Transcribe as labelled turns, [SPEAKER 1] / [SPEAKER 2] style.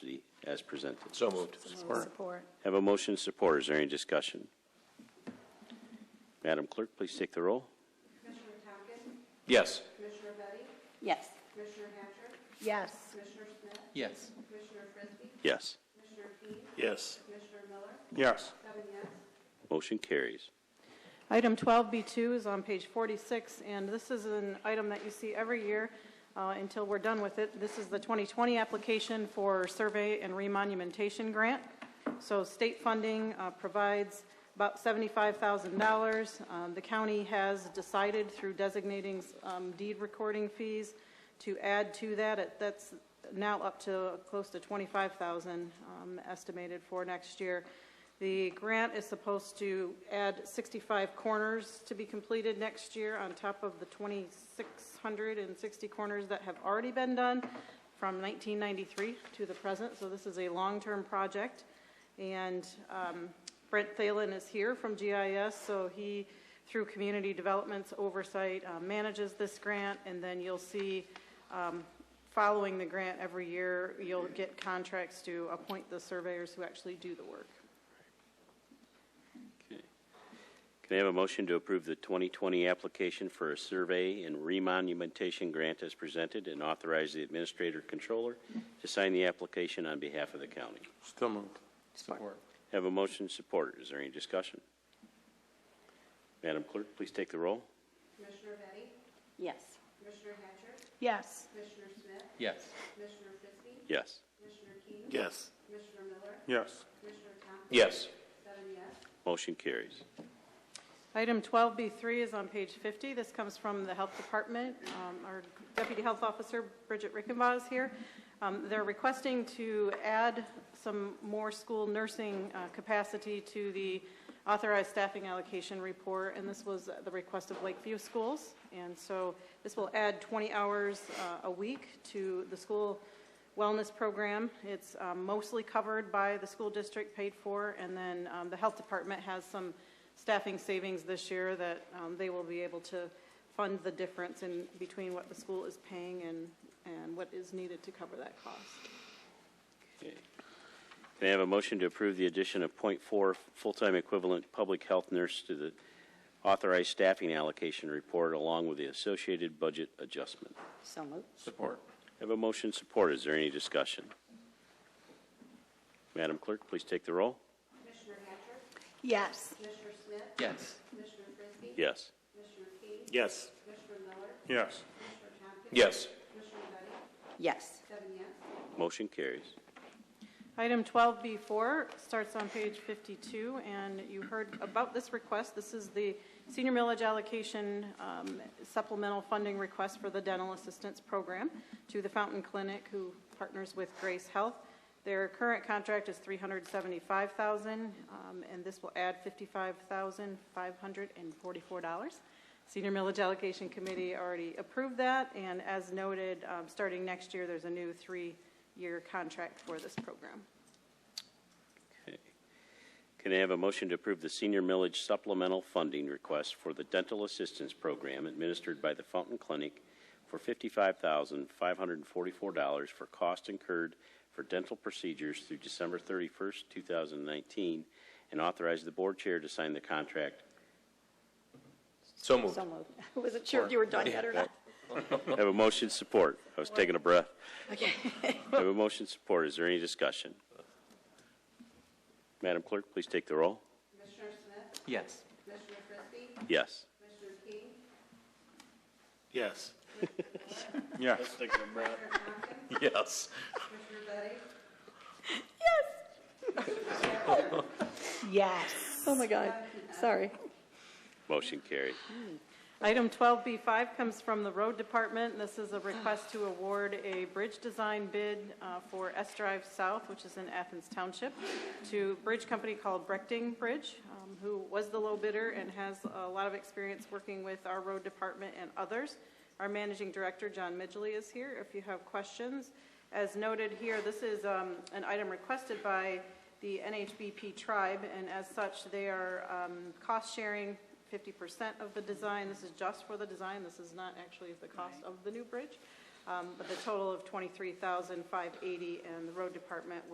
[SPEAKER 1] as presented.
[SPEAKER 2] So moved.
[SPEAKER 3] Support.
[SPEAKER 1] Have a motion and support. Is there any discussion? Madam Clerk, please take the roll.
[SPEAKER 4] Commissioner Tompkins?
[SPEAKER 2] Yes.
[SPEAKER 4] Commissioner Betty?
[SPEAKER 3] Yes.
[SPEAKER 4] Commissioner Hatcher?
[SPEAKER 3] Yes.
[SPEAKER 4] Commissioner Smith?
[SPEAKER 2] Yes.
[SPEAKER 4] Commissioner Frisbee?
[SPEAKER 1] Yes.
[SPEAKER 4] Commissioner Keane?
[SPEAKER 2] Yes.
[SPEAKER 4] Commissioner Miller?
[SPEAKER 2] Yes.
[SPEAKER 4] Seven yes.
[SPEAKER 1] Motion carries.
[SPEAKER 5] Item 12B2 is on page 46, and this is an item that you see every year uh, until we're done with it. This is the 2020 application for survey and remonumentation grant. So state funding uh, provides about $75,000. Um, The county has decided through designating um, deed recording fees to add to that. It- That's now up to close to 25,000 um, estimated for next year. The grant is supposed to add 65 corners to be completed next year on top of the 2,660 corners that have already been done from 1993 to the present. So this is a long-term project. And um, Brent Thalen is here from GIS, so he, through Community Development's oversight, uh, manages this grant. And then you'll see um, following the grant every year, you'll get contracts to appoint the surveyors who actually do the work.
[SPEAKER 1] Can I have a motion to approve the 2020 application for a survey and remonumentation grant as presented and authorize the administrator controller to sign the application on behalf of the county?
[SPEAKER 2] Still moved. Support.
[SPEAKER 1] Have a motion and support. Is there any discussion? Madam Clerk, please take the roll.
[SPEAKER 4] Commissioner Betty?
[SPEAKER 3] Yes.
[SPEAKER 4] Commissioner Hatcher?
[SPEAKER 5] Yes.
[SPEAKER 4] Commissioner Smith?
[SPEAKER 2] Yes.
[SPEAKER 4] Commissioner Frisbee?
[SPEAKER 1] Yes.
[SPEAKER 4] Commissioner Keane?
[SPEAKER 2] Yes.
[SPEAKER 4] Commissioner Miller?
[SPEAKER 2] Yes.
[SPEAKER 4] Commissioner Tompkins?
[SPEAKER 2] Yes.
[SPEAKER 4] Seven yes.
[SPEAKER 1] Motion carries.
[SPEAKER 5] Item 12B3 is on page 50. This comes from the Health Department. Um, Our Deputy Health Officer, Bridget Rickenbaugh, is here. Um, They're requesting to add some more school nursing uh, capacity to the authorized staffing allocation report, and this was the request of Lakeview Schools. And so this will add 20 hours uh, a week to the school wellness program. It's um, mostly covered by the school district, paid for, and then um, the health department has some staffing savings this year that um, they will be able to fund the difference in between what the school is paying and, and what is needed to cover that cost.
[SPEAKER 1] Okay. Can I have a motion to approve the addition of .4 full-time equivalent public health nurse to the authorized staffing allocation report along with the associated budget adjustment?
[SPEAKER 3] So moved.
[SPEAKER 2] Support.
[SPEAKER 1] I Have a motion support. Is there any discussion? Madam Clerk, please take the roll.
[SPEAKER 4] Commissioner Hatcher?
[SPEAKER 3] Yes.
[SPEAKER 4] Commissioner Smith?
[SPEAKER 2] Yes.
[SPEAKER 4] Commissioner Frisbee?
[SPEAKER 1] Yes.
[SPEAKER 4] Commissioner Keane?
[SPEAKER 2] Yes.
[SPEAKER 4] Commissioner Miller?
[SPEAKER 2] Yes.
[SPEAKER 4] Commissioner Tompkins?
[SPEAKER 2] Yes.
[SPEAKER 4] Commissioner Betty?
[SPEAKER 3] Yes.
[SPEAKER 4] Seven yes.
[SPEAKER 1] Motion carries.
[SPEAKER 5] Item 12B4 starts on page 52, and you heard about this request. This is the senior millage allocation um, supplemental funding request for the dental assistance program to the Fountain Clinic, who partners with Grace Health. Their current contract is $375,000, um, and this will add $55,544. Senior Millage Allocation Committee already approved that, and as noted, um, starting next year, there's a new three-year contract for this program.
[SPEAKER 1] Okay. Can I have a motion to approve the senior millage supplemental funding request for the dental assistance program administered by the Fountain Clinic for $55,544 for cost incurred for dental procedures through December 31st, 2019, and authorize the board chair to sign the contract?
[SPEAKER 2] So moved.
[SPEAKER 3] So moved. I wasn't sure if you were done yet or not.
[SPEAKER 1] I Have a motion support. I was taking a breath.
[SPEAKER 3] Okay.
[SPEAKER 1] I Have a motion support. Is there any discussion? Madam Clerk, please take the roll.
[SPEAKER 4] Commissioner Smith?
[SPEAKER 2] Yes.
[SPEAKER 4] Commissioner Frisbee?
[SPEAKER 1] Yes.
[SPEAKER 4] Commissioner Keane?
[SPEAKER 2] Yes. Yes.
[SPEAKER 4] Tompkins?
[SPEAKER 2] Yes.
[SPEAKER 4] Commissioner Betty?
[SPEAKER 3] Yes. Oh, my God. Sorry.
[SPEAKER 1] Motion carried.
[SPEAKER 5] Item 12B5 comes from the Road Department. This is a request to award a bridge design bid uh, for S Drive South, which is in Athens Township, to a bridge company called Brechting Bridge, um, who was the low bidder and has a lot of experience working with our road department and others. Our managing director, John Midgley, is here if you have questions. As noted here, this is um, an item requested by the NHBP tribe, and as such, they are um, cost-sharing 50% of the design. This is just for the design, this is not actually the cost of the new bridge, Um, but the total of 23580 and the road department